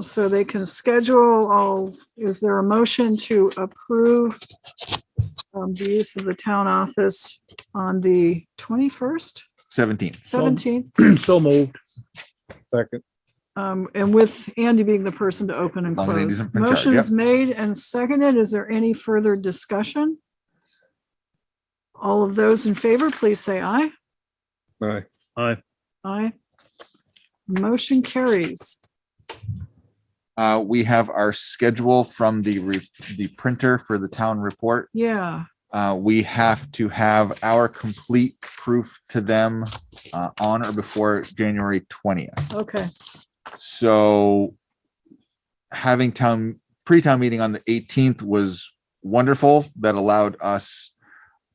so they can schedule all, is there a motion to approve um, the use of the town office on the twenty-first, Seventeen. seventeenth? So moved. Second. Um, and with Andy being the person to open and Long as Andy's close. in charge, yep. Motion's made and seconded. Is there any further discussion? All of those in favor, please say aye. Aye. Aye. Motion carries. Uh, we have our schedule from the re- the printer for the town report. Yeah, Uh, we have to have our complete proof to them uh, on or before January twentieth. okay. So having town pre-town meeting on the eighteenth was wonderful. That allowed us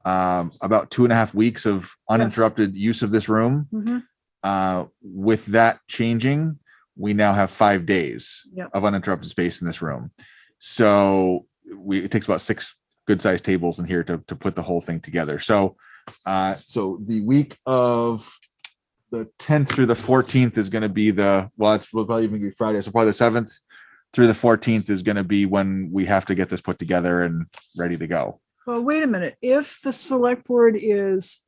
um, about two and a half weeks of uninterrupted use of this room. Mhm. Uh, with that changing, we now have five days Yep. of uninterrupted space in this room. So we, it takes about six good sized tables in here to, to put the whole thing together. So, uh, so the week of the 10th through the 14th is going to be the, well, it's will probably even be Friday. So probably the 7th through the 14th is going to be when we have to get this put together and ready to go. Well, wait a minute. If the select board is.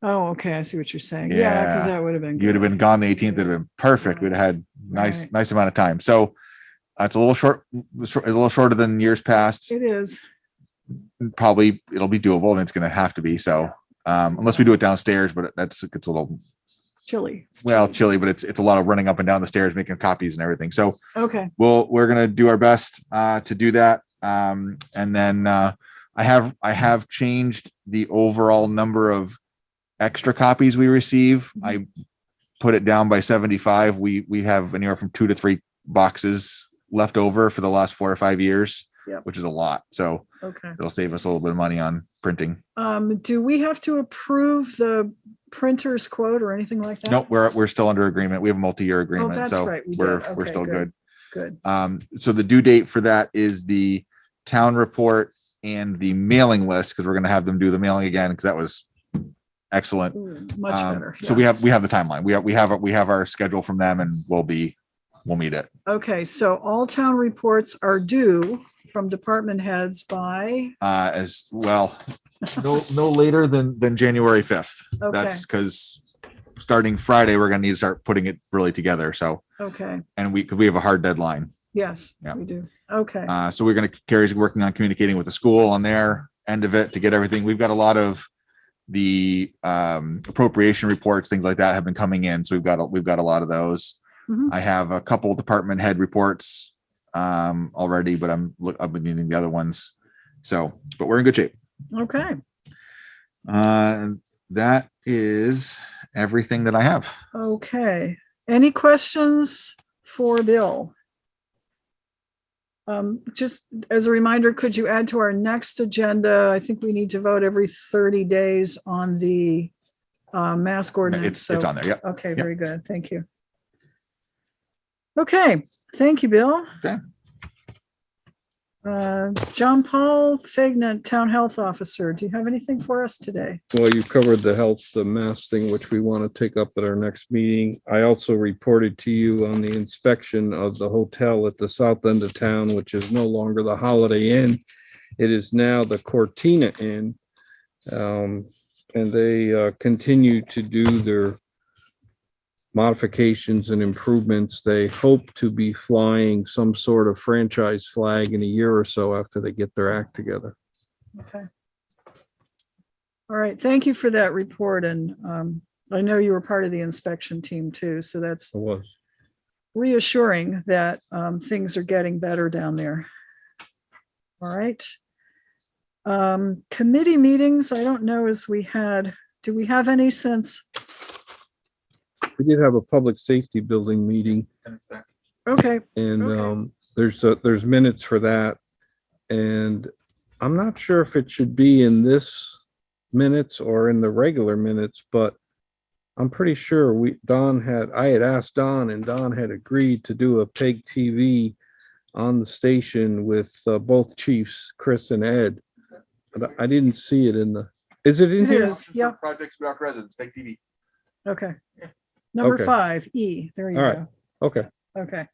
Oh, okay. I see what you're saying. Yeah, because Yeah. that would have been. You'd have good. been gone the 18th. It'd have been perfect. We'd have had nice, Right. nice amount of time. So uh, it's a little short, it's a little shorter than years past. It is. Probably it'll be doable and it's going to have to be. So um, unless we do it downstairs, but that's, it's a little, Chilly. It's well, chilly, but it's, it's a lot of running up and down the stairs, making copies and everything. So Okay, we'll, we're going to do our best uh, to do that. Um, and then uh, I have, I have changed the overall number of extra copies we receive. I put it down by 75. We, we have anywhere from two to three boxes left over for the last four or five years, Yep. which is a lot. So okay. it'll save us a little bit of money on printing. Um, do we have to approve the printer's quote or anything like that? Nope, we're, we're still under agreement. We have a multi-year agreement, Oh, that's so right, we did. we're, we're Okay, still good. good. Good. Um, so the due date for that is the town report and the mailing list, because we're gonna have them do the mailing again, because that was excellent. Ooh, Much Um, better. So we have, we have the timeline. We have, we have, we have our schedule from them and we'll be, we'll meet it. Yeah. Okay, so all town reports are due from department heads by, Uh, as well, no, no later than, than January fifth. okay, That's because starting Friday, we're gonna need to start putting it really together. So, okay, and we, 'cause we have a hard deadline. yes, Yeah. we do. Okay, Uh, so we're going to, Carrie's working on communicating with the school on their end of it to get everything. We've got a lot of the um, appropriation reports, things like that have been coming in. So we've got, a- we've got a lot of those. Mhm. I have a couple department head reports um, already, but I'm, look- I've been needing the other ones. So, but we're in good shape. okay, Uh, and that is everything that I have. okay. Any questions for Bill? Um, just as a reminder, could you add to our next agenda? I think we need to vote every thirty days on the uh, mask ordinance. It's, so- it's on there. Yep. Okay, Yep. very good. Thank you. Okay, thank you, Bill. Okay. Uh, John Paul Fagnan, Town Health Officer, do you have anything for us today? Well, you covered the health, the mask thing, which we want to take up at our next meeting. I also reported to you on the inspection of the hotel at the south end of town, which is no longer the Holiday Inn. It is now the Cortina Inn. Um, and they, uh, continue to do their modifications and improvements. They hope to be flying some sort of franchise flag in a year or so after they get their act together. Okay. All right, thank you for that report and um, I know you were part of the inspection team too, so that's It was. reassuring that um, things are getting better down there. All right. Um, committee meetings, I don't know as we had, do we have any since? We did have a public safety building meeting Okay, and Okay. um, there's, uh, there's minutes for that. And I'm not sure if it should be in this minutes or in the regular minutes, but I'm pretty sure we, Don had, I had asked Don and Don had agreed to do a peg TV on the station with uh, both chiefs, Chris and Ed. But I I didn't see it in the, is it in it here? is, yeah, Projects without residents, fake TV. okay. Number Okay. five, E, there you All right. go. Okay. Okay.